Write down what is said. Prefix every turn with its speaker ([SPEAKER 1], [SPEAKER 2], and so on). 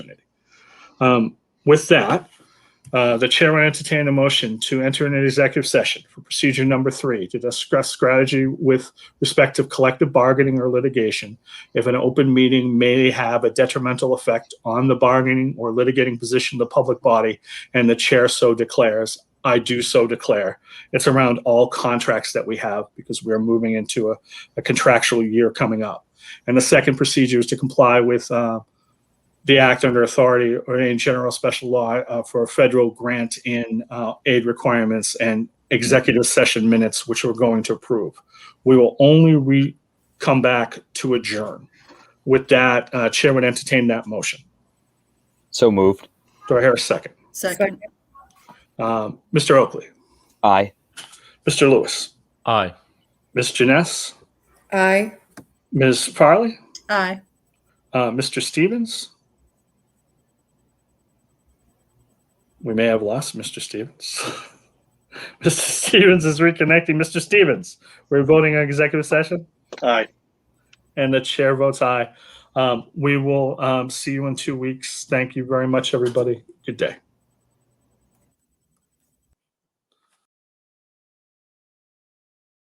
[SPEAKER 1] Um, With that, uh, the chair will entertain a motion to enter an executive session for procedure number three to discuss strategy with respect to collective bargaining or litigation if an open meeting may have a detrimental effect on the bargaining or litigating position of the public body and the chair so declares, I do so declare. It's around all contracts that we have because we're moving into a a contractual year coming up. And the second procedure is to comply with uh, the act under authority or in general special law uh, for a federal grant in uh, aid requirements and executive session minutes, which we're going to approve. We will only re- come back to adjourn. With that, uh, Chair would entertain that motion.
[SPEAKER 2] So moved.
[SPEAKER 1] Do I hear a second?
[SPEAKER 3] Second,
[SPEAKER 1] Um, Mr. Oakley,
[SPEAKER 2] Aye.
[SPEAKER 1] Mr. Lewis,
[SPEAKER 4] Aye.
[SPEAKER 1] Ms. Janess,
[SPEAKER 5] Aye.
[SPEAKER 1] Ms. Farley,
[SPEAKER 3] aye.
[SPEAKER 1] uh, Mr. Stevens. We may have lost Mr. Stevens. Mr. Stevens is reconnecting. Mr. Stevens, we're voting on executive session? Aye. And the chair votes aye. Um, we will, um, see you in two weeks. Thank you very much, everybody. Good day.